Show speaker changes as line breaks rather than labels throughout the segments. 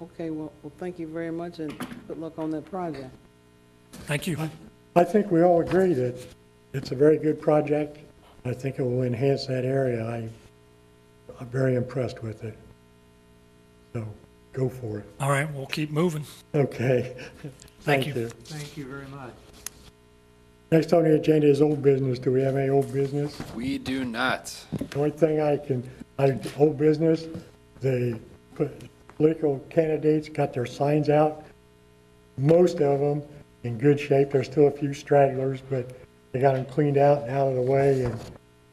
Okay, well, well, thank you very much, and good luck on that project.
Thank you.
I think we all agree that it's a very good project. I think it will enhance that area. I, I'm very impressed with it. So go for it.
All right, we'll keep moving.
Okay.
Thank you.
Thank you very much.
Next on the agenda is old business. Do we have any old business?
We do not.
The only thing I can, I, old business, the political candidates got their signs out, most of them in good shape. There's still a few stragglers, but they got them cleaned out and out of the way and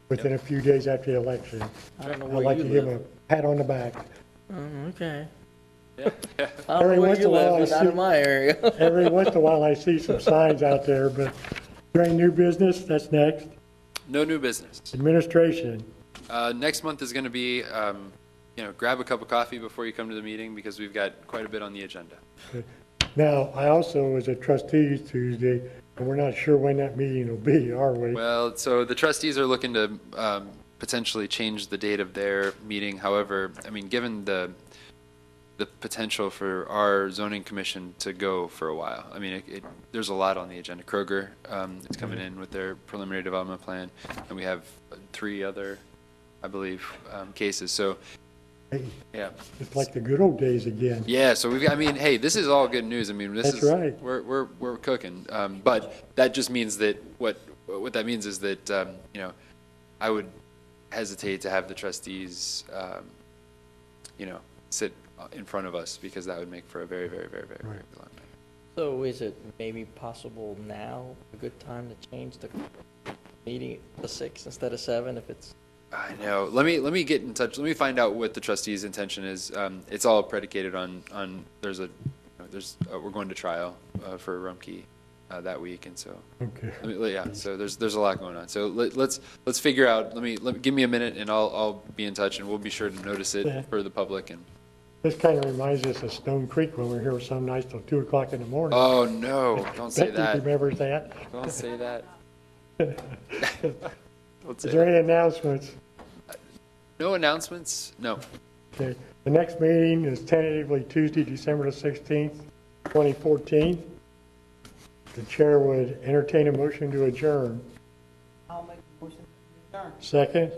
within a few days after the election.
I don't know
I'd
where
like
you
to give
live.
them a pat on the back.
Mm, Okay.
Yeah, yeah.
I don't
Every
know where
once
you
in a while I
live, but not
see-
in my area.
Every once in a while I see some signs out there, but during new business, that's next.
No new business.
Administration,
Uh, next month is going to be, um, you know, grab a cup of coffee before you come to the meeting because we've got quite a bit on the agenda.
Now, I also was a trustee Tuesday, and we're not sure when that meeting will be, are we?
Well, so the trustees are looking to um, potentially change the date of their meeting. However, I mean, given the the potential for our zoning commission to go for a while, I mean, it, it, there's a lot on the agenda. Kroger um, is coming in with their preliminary development plan, and we have three other, I believe, um, cases. So,
Hey,
yeah.
It's like the good old days again.
Yeah, so we've, I mean, hey, this is all good news. I mean, this
That's
is,
right.
we're, we're, we're cooking. Um, but that just means that what, what that means is that, um, you know, I would hesitate to have the trustees, um, you know, sit in front of us because that would make for a very, very, very, very, very long night.
So is it maybe possible now, a good time to change the meeting to six instead of seven if it's?
I know. Let me let me get in touch. Let me find out what the trustees' intention is. Um, it's all predicated on on there's a there's uh, we're going to trial uh, for Rumkey uh, that week, and so
Okay.
Let me- yeah. So there's there's a lot going on. So let, let's let's figure out. Let me let me, give me a minute, and I'll I'll be in touch, and we'll be sure to notice
Yeah.
it for the public. And
This kind of reminds us of Stone Creek when we were here some nights till two o'clock in the morning.
oh no, don't say
Becky
that.
remembers that.
Don't say that. Don't say
Is there
that.
any announcements?
No announcements. No.
Okay. The next meeting is tentatively Tuesday, December the sixteenth, twenty fourteen. The chair would entertain a motion to adjourn.
I'll make a motion to adjourn.
Second?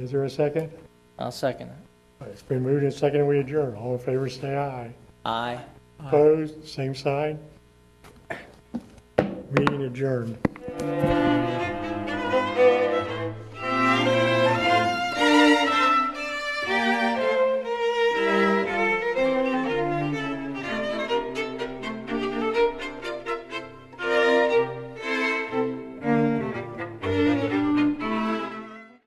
Is there a second?
I'll second it.
It's been moved and seconded, we adjourn. All in favor, say aye.
Aye.
Opposed, same sign. Meeting adjourned.